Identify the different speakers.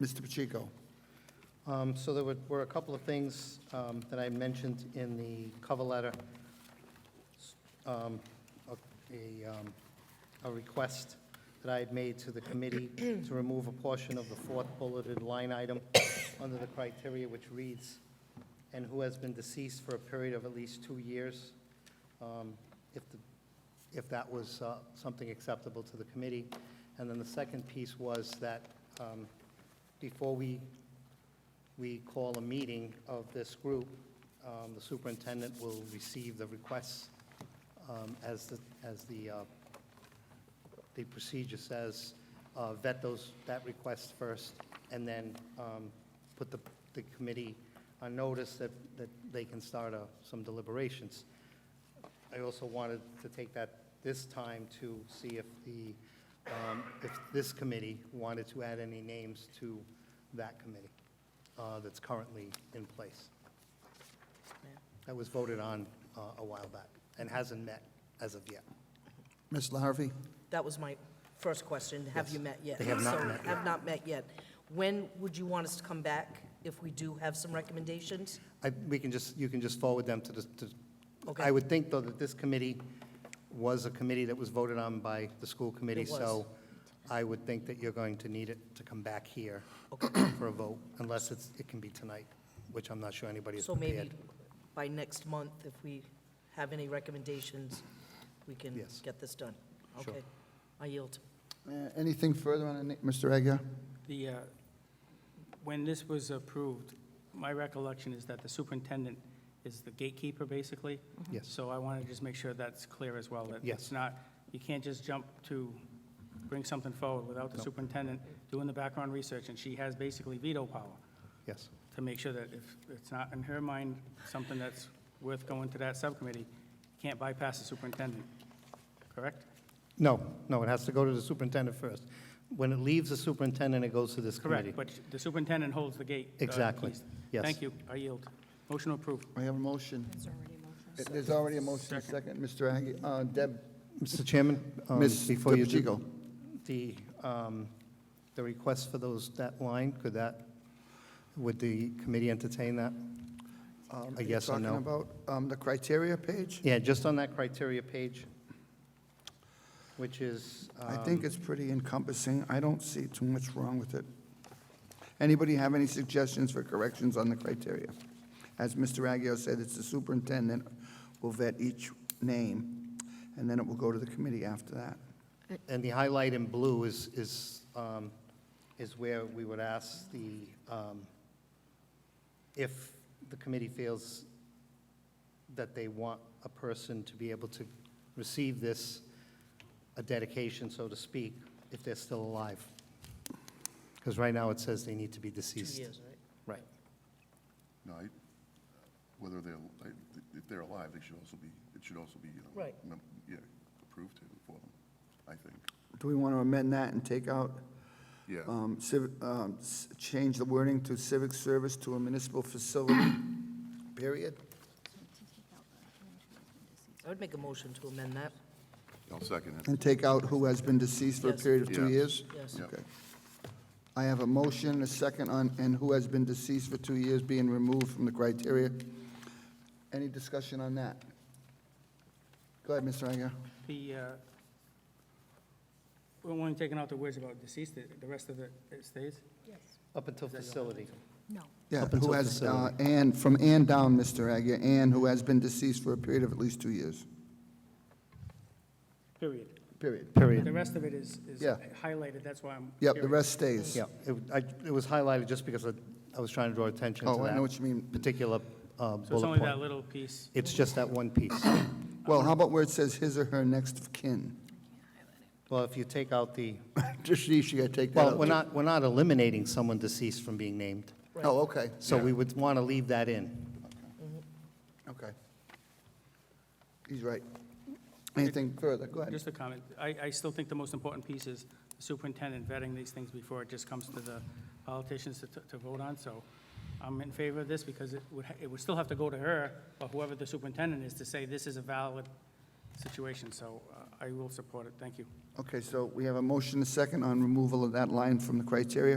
Speaker 1: Mr. Pacheco?
Speaker 2: Um, So there were were a couple of things um, that I mentioned in the cover letter. S- um, A a, um, a request that I had made to the committee to remove a portion of the fourth bulleted line item under the criteria which reads, "and who has been deceased for a period of at least two years." um, If the if that was uh, something acceptable to the committee. And then the second piece was that um, before we, we call a meeting of this group, um, the superintendent will receive the requests um, as the, as the, uh, the procedure says, uh, vet those, that request first, and then um, put the, the committee on notice that, that they can start uh, some deliberations. I also wanted to take that this time to see if the, um, if this committee wanted to add any names to that committee uh, that's currently in place. That was voted on uh, a while back and hasn't met as of yet.
Speaker 1: Ms. Larrabee?
Speaker 3: That was my first question. Have you met yet?
Speaker 2: They have not
Speaker 3: So,
Speaker 2: met
Speaker 3: Have not met yet. When would you want us to come back if we do have some recommendations?
Speaker 2: I, we can just, you can just forward them to the, to,
Speaker 3: Okay.
Speaker 2: I would think, though, that this committee was a committee that was voted on by the school committee,
Speaker 3: It was.
Speaker 2: so I would think that you're going to need it to come back here for a vote, unless it's, it can be tonight, which I'm not sure anybody is
Speaker 3: So maybe
Speaker 2: prepared.
Speaker 3: by next month, if we have any recommendations, we can
Speaker 2: Yes.
Speaker 3: get this done.
Speaker 2: Sure.
Speaker 3: Okay, I yield.
Speaker 1: Uh, Anything further on, any- Mr. Aguirre?
Speaker 4: The, uh, when this was approved, my recollection is that the superintendent is the gatekeeper, basically.
Speaker 2: Yes,
Speaker 4: So I want to just make sure that's clear as well, that
Speaker 2: Yes.
Speaker 4: it's not, you can't just jump to bring something forward without the
Speaker 2: No.
Speaker 4: superintendent doing the background research, and she has basically veto power
Speaker 2: yes,
Speaker 4: to make sure that if it's not, in her mind, something that's worth going to that subcommittee, you can't bypass the superintendent, correct?
Speaker 2: no, no, it has to go to the superintendent first. When it leaves the superintendent, it goes to this committee.
Speaker 4: Correct, but the superintendent holds the gate. uh,
Speaker 2: Exactly,
Speaker 4: keys.
Speaker 2: yes.
Speaker 4: Thank you, I yield. Motion approved.
Speaker 1: We have a motion. Uh, There's already a motion, second, Mr. Aguirre, uh, Deb,
Speaker 2: Mr. Chairman, um,
Speaker 1: Ms.
Speaker 2: before you do,
Speaker 1: Pacheco?
Speaker 2: the, um, the request for those, that line, could that, would the committee entertain that?
Speaker 1: um,
Speaker 2: A yes or no?
Speaker 1: Talking about um, the criteria page?
Speaker 2: Yeah, just on that criteria page, which is.
Speaker 1: I think
Speaker 2: um,
Speaker 1: it's pretty encompassing. I don't see too much wrong with it. Anybody have any suggestions for corrections on the criteria? As Mr. Aguirre said, it's the superintendent will vet each name, and then it will go to the committee after that.
Speaker 2: um, And the highlight in blue is, is, um, is where we would ask the, um, if the committee feels that they want a person to be able to receive this, a dedication, so to speak, if they're still alive. Because right now it says they need to be
Speaker 3: Two
Speaker 2: deceased.
Speaker 3: years, right?
Speaker 2: Right.
Speaker 5: No, I- whether they're, I- if they're alive, they should also be, it should also be, you know.
Speaker 3: Right.
Speaker 5: mem- Yeah, approved to- for them, I think.
Speaker 1: Do we want to amend that and take out,
Speaker 5: Yeah,
Speaker 1: um, civ- um, s- change the wording to civic service to a municipal facility, period?
Speaker 3: I would make a motion to amend that,
Speaker 5: I'll second it.
Speaker 1: And take out who has been deceased for a
Speaker 3: Yes.
Speaker 1: period of two
Speaker 5: Yeah.
Speaker 1: years?
Speaker 3: yes.
Speaker 5: Yeah.
Speaker 1: Okay. I have a motion, a second on, and who has been deceased for two years being removed from the criteria. Any discussion on that? Go ahead, Mr. Aguirre.
Speaker 4: The, uh, we're only taking out the words about deceased, the the rest of it it stays?
Speaker 2: Up until facility.
Speaker 6: No.
Speaker 1: Yeah,
Speaker 2: Up
Speaker 1: who
Speaker 2: until
Speaker 1: has, uh,
Speaker 2: facility.
Speaker 1: and, from and down, Mr. Aguirre, and who has been deceased for a period of at least two years,
Speaker 4: Period.
Speaker 1: period.
Speaker 4: The
Speaker 2: Period.
Speaker 4: rest of it is is
Speaker 1: Yeah.
Speaker 4: highlighted, that's why I'm.
Speaker 1: Yep, the
Speaker 4: curious.
Speaker 1: rest stays.
Speaker 2: Yeah, it, I, it was highlighted just because I, I was trying to draw attention to
Speaker 1: Oh, I know
Speaker 2: that
Speaker 1: what you mean.
Speaker 2: particular uh, bullet point.
Speaker 4: So it's only that little piece.
Speaker 2: It's just that one piece.
Speaker 1: Well, how about where it says his or her next of kin?
Speaker 2: Well, if you take out the,
Speaker 1: Just, you gotta take that out.
Speaker 2: well, we're not, we're not eliminating someone deceased from being named,
Speaker 1: Oh, okay,
Speaker 2: so we would want to leave that in.
Speaker 1: okay. He's right. Anything further? Go ahead.
Speaker 4: Just a comment. I, I still think the most important piece is the superintendent vetting these things before it just comes to the politicians to, to vote on. So I'm in favor of this because it would, ha- it would still have to go to her or whoever the superintendent is to say this is a valid situation. So uh, I will support it. Thank you.
Speaker 1: Okay, so we have a motion, a second, on removal of that line from the criteria.